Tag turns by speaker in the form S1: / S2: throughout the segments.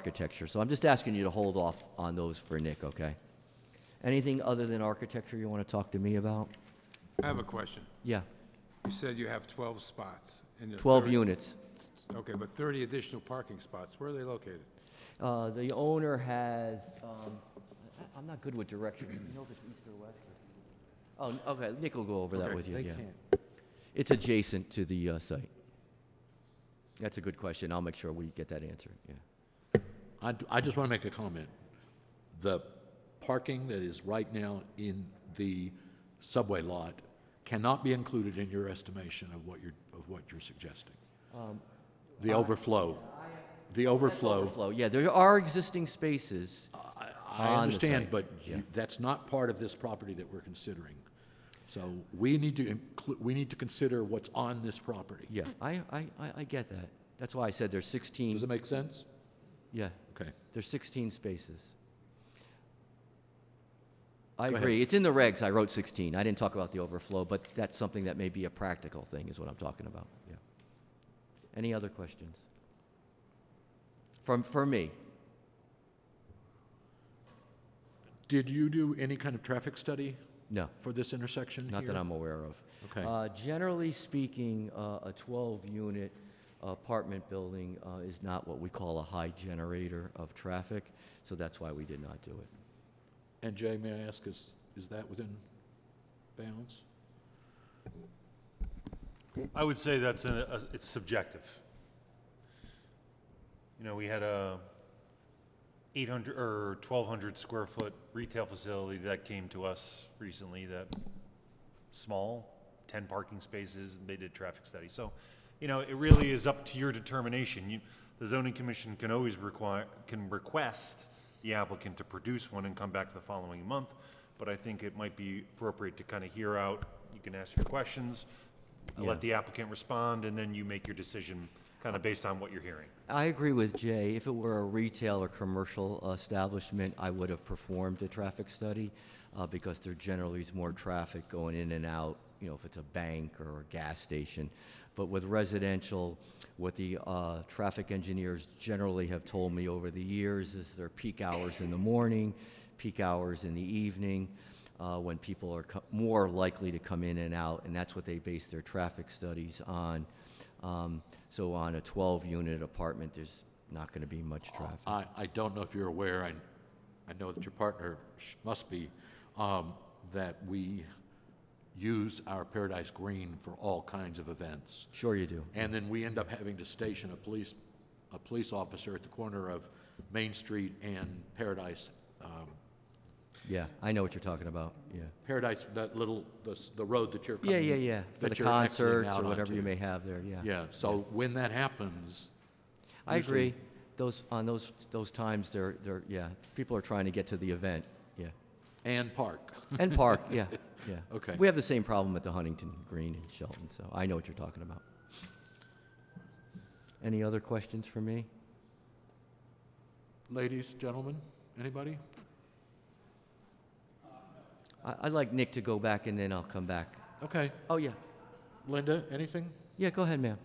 S1: architecture. So I'm just asking you to hold off on those for Nick, okay? Anything other than architecture you want to talk to me about?
S2: I have a question.
S1: Yeah,
S2: You said you have 12 spots. and the
S1: 12
S2: thirty-
S1: units.
S2: Okay, but 30 additional parking spots. Where are they located?
S1: Uh, The owner has, um, I- I'm not good with direction, you know if it's east or west? or- Oh, okay, Nick will go over that
S2: Okay.
S1: with you, yeah. It's adjacent to the uh, site. That's a good question, I'll make sure we get that answered, yeah.
S3: I, d- I just want to make a comment. The parking that is right now in the subway lot cannot be included in your estimation of what you're, of what you're suggesting.
S1: Um,
S3: The overflow, the overflow,
S1: Overflow, yeah, there are existing spaces.
S3: I
S1: on the
S3: understand,
S1: site,
S3: but you-
S1: yeah.
S3: that's not part of this property that we're considering. So we need to include, we need to consider what's on this property.
S1: Yeah, I, I, I- I get that. That's why I said there's
S3: Does
S1: 16,
S3: it make sense?
S1: yeah,
S3: Okay.
S1: there's 16 spaces. I
S3: Go ahead.
S1: agree, it's in the regs, I wrote 16, I didn't talk about the overflow, but that's something that may be a practical thing, is what I'm talking about, yeah. Any other questions? From, for me?
S3: Did you do any kind of traffic study
S1: No,
S3: for this intersection here?
S1: not that I'm aware of.
S3: Okay.
S1: Uh, Generally speaking, uh, a 12-unit apartment building uh, is not what we call a high generator of traffic, so that's why we did not do it.
S3: And Jay, may I ask, is, is that within bounds?
S4: I would say that's, an- a- it's subjective. You know, we had a 800 or 1,200 square foot retail facility that came to us recently that, small, 10 parking spaces, and they did traffic study. So, you know, it really is up to your determination. You, the zoning commission can always require, can request the applicant to produce one and come back the following month, but I think it might be appropriate to kind of hear out, you can ask your questions,
S1: Yeah.
S4: let the applicant respond, and then you make your decision kind of based on what you're hearing.
S1: I agree with Jay. If it were a retail or commercial establishment, I would have performed a traffic study uh, because there generally is more traffic going in and out, you know, if it's a bank or a gas station. But with residential, what the uh, traffic engineers generally have told me over the years is their peak hours in the morning, peak hours in the evening, uh, when people are co- more likely to come in and out, and that's what they base their traffic studies on. Um, So on a 12-unit apartment, there's not going to be much traffic.
S3: I, I don't know if you're aware, I, I know that your partner sh- must be, um, that we use our Paradise Green for all kinds of events.
S1: Sure you do.
S3: And then we end up having to station a police, a police officer at the corner of Main Street and Paradise, um,
S1: Yeah, I know what you're talking about, yeah.
S3: Paradise, that little, the, s- the road that you're coming.
S1: Yeah, yeah, yeah, for the
S3: that you're exiting
S1: concerts
S3: out
S1: or whatever you
S3: onto.
S1: may have there, yeah.
S3: Yeah, so when that happens,
S1: I
S3: usually-
S1: agree. Those, on those, those times, they're, they're, yeah, people are trying to get to the event, yeah.
S3: and park.
S1: And park, yeah, yeah.
S3: Okay.
S1: We have the same problem at the Huntington Green in Shelton, so I know what you're talking about. Any other questions for me?
S3: Ladies, gentlemen, anybody?
S1: I- I'd like Nick to go back, and then I'll come back.
S3: Okay.
S1: Oh, yeah.
S3: Linda, anything?
S1: Yeah, go ahead, ma'am.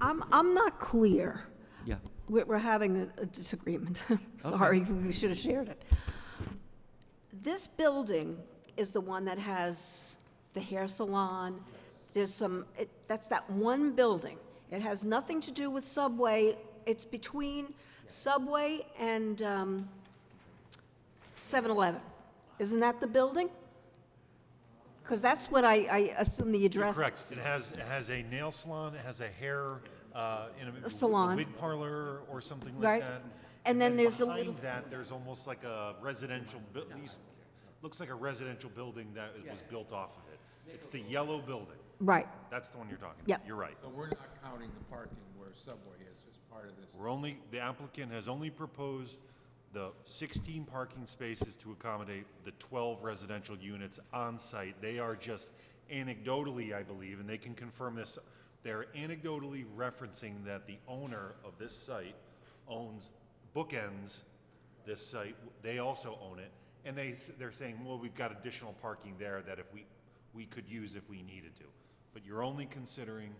S5: I'm, I'm not clear.
S1: Yeah.
S5: We're, we're having a, a disagreement. Sorry, we should have shared it. This building is the one that has the hair salon. There's some, it, that's that one building. It has nothing to do with Subway. It's between Subway and, um, 7-Eleven. Isn't that the building? Because that's what I, I assume the
S4: You're
S5: address.
S4: correct. It has, it has a nail salon, it has a hair, uh, in a.
S5: salon.
S4: Wig parlor or something like
S5: Right.
S4: that.
S5: And then there's a little-
S4: Behind that, there's almost like a residential, bu- at least, looks like a residential building that was built off of it. It's the yellow building.
S5: Right.
S4: That's the one you're talking about.
S5: Yeah.
S4: You're right.
S2: But we're not counting the parking where Subway is as part of this.
S4: We're only, the applicant has only proposed the sixteen parking spaces to accommodate the twelve residential units on site. They are just anecdotally, I believe, and they can confirm this, they're anecdotally referencing that the owner of this site owns, bookends this site, they also own it, and they, s- they're saying, well, we've got additional parking there that if we, we could use if we needed to. But you're only considering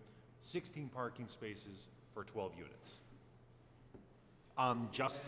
S4: sixteen parking spaces for twelve units. on um, just